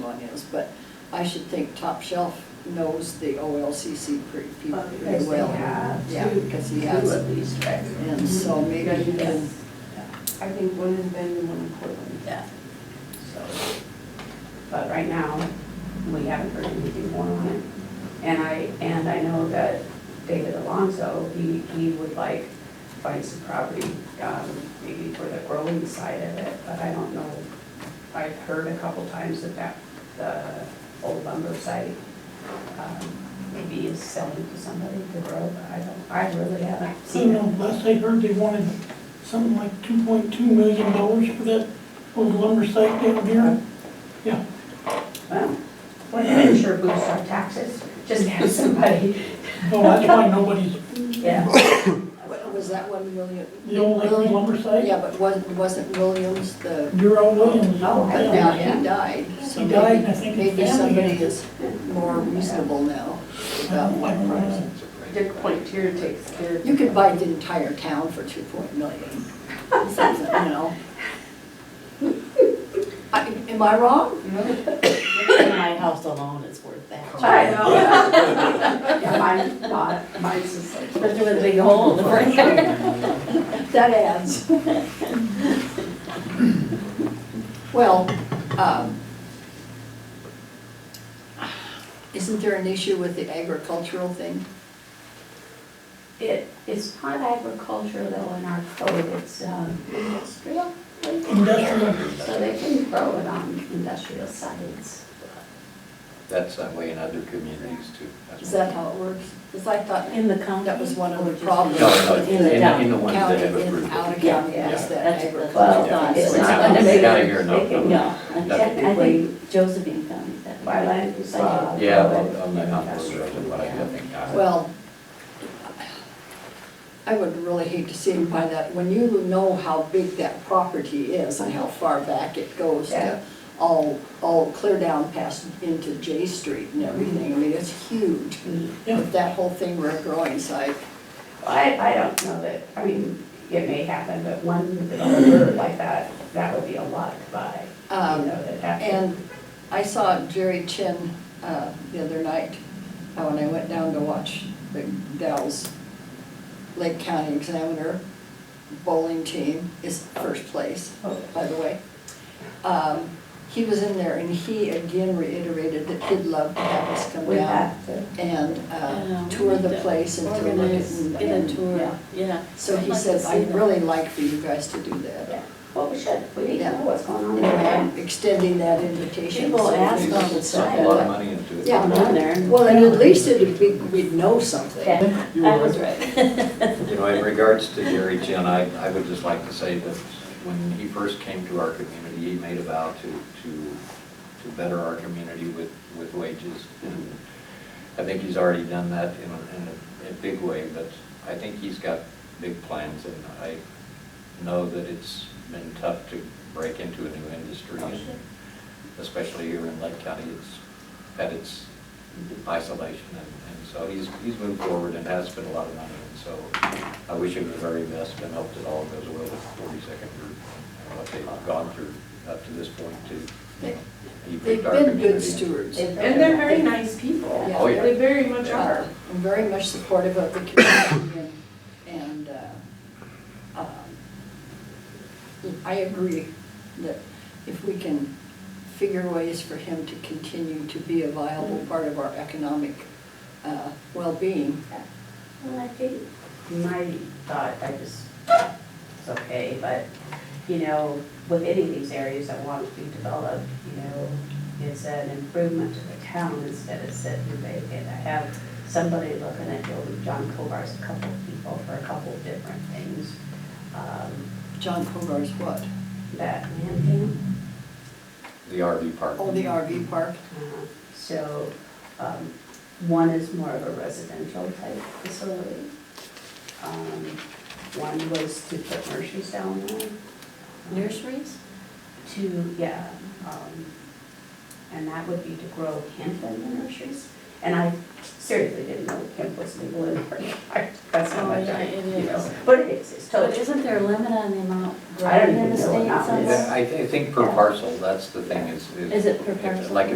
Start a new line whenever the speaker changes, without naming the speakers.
is, but I should think Top Shelf knows the OLCC pre- people
Well,
pretty
because they
well.
have
Yeah,
to
because he
do
has-
at least, right?
And so maybe
Yeah,
he
you
can,
guys. I think one in Bend and one in Portland,
Yeah.
so. But right now, we haven't heard anything more on it. And I, and I know that David Alonso, he, he would like find some property, um, maybe for the growing side of it, but I don't know. I've heard a couple times that that, the old lumber site, um, maybe is selling to somebody to grow, but I don't, I really haven't
I don't
seen it.
know, last I heard, they wanted something like two point two million dollars for that old lumber site down here. Yeah,
Mm-hmm.
Well, we're not sure boost our taxes, just have somebody,
oh, that's why nobody's,
yeah.
what- was that one William?
the old Lakeview lumber site,
Yeah, but wasn't, wasn't Williams the,
Darrell Williams.
Oh, I
yeah.
now
know.
he died. so
He died,
maybe-
and I think his
Maybe
family
somebody
had-
is more reasonable now about what price.
Dick Pointier takes care of.
You could buy the entire town for two point million, something, you know? I- Am I wrong?
My house alone is worth that.
I know. Yeah, mine, mine, mine's just like.
Especially with a big hole in the front.
That adds. Well, um, isn't there an issue with the agricultural thing?
It, it's not agriculture though in our code, it's, um, industrial.
Industrial.
So they can grow it on industrial sites.
That's that way in other communities too. That's
Is
what-
that how it works? Because I thought
In the county?
that was one of the problems
No, no,
with
In the
the
in,
town.
in the ones that
county
have
in, out Oh, of
approved.
county,
Yeah.
is that
That's- that's-
agricultural.
Well, it's
Yeah.
not
Yeah.
big.
Gotta hear no.
They can-
No, I
Technically-
think Josephine County. that-
By land use law.
Uh, Yeah, on on the, on those
uh, Industrial.
roads, but I think. I-
Well, I would really hate to see him buy that, when you know how big that property is and how far back it goes
Yeah.
to all, all clear down past into J Street and everything, I mean, it's huge.
Yeah.
If that whole thing were a growing site,
I, I don't know that, I mean, it may happen, but one developer like that, that would be a lot to buy. You
Um,
know, that that-
And I saw Jerry Chin uh, the other night, uh, when I went down to watch the Dalles Lake County Examiner bowling team is first place,
Oh.
by the way. Um, He was in there and he again reiterated that he'd love to have us come
We
down
have to.
and
Yeah,
uh,
we
tour
need
the
to
place and to look at.
Organize,
and-
get a
and-
tour,
yeah.
yeah.
So
I'd
he
like to
said,
see
I'd
that."
really like for you guys to do that.
Yeah, well, we should, we need to know what's going on.
And I'm extending that invitation.
People
so
ask
we
all
should
the
start
Sunk
time.
a lot
that.
of money into it.
Yeah.
I'm on there.
Well, and at least it'd be, we'd know something.
Yeah, I was right.
You know, in regards to Jerry Chin, I, I would just like to say that when he first came to our community, he made a vow to, to, to better our community with, with wages. And I think he's already done that in, a- in a, a big way, but I think he's got big plans and I know that it's been tough to break into a new industry. and Especially here in Lake County, it's had its isolation and, and so he's, he's moved forward and has spent a lot of money. And so I wish him the very best and hope that all goes well with Forty-second Group and what they've gone through up to this point to, you know,
They've
equip our
been good
community.
stewards.
They've been-
And they're very nice people.
Yeah.
Oh, yeah.
They very much
Uh,
are.
I'm very much supportive of the community and, and, uh, um, I agree that if we can figure ways for him to continue to be a viable part of our economic, uh, well-being,
Well, I think my thought, I just, it's okay, but, you know, with any of these areas that want to be developed, you know, it's an improvement to the town instead of sitting vacant. I have somebody looking at building John Kovar's, a couple of people for a couple of different things. Um,
John Hogarth's what?
That land thing,
The RV park.
Oh, the RV park?
Uh, So, um, one is more of a residential type facility. Um, One was to put nurseries down there. Um,
Nurseries?
To, yeah, um, and that would be to grow hemp in the nurseries. And I seriously didn't know hemp was legal in Oregon. I- That's how
Oh,
much
yeah,
I,
it
you
is.
know, but it is, it's
But
totally.
isn't there a limit on the amount
I don't
grown in
even know
the states
about
on
this.
that?
Yeah, I, thi- I think per parcel, that's the thing is.
Is it per parcel?
Like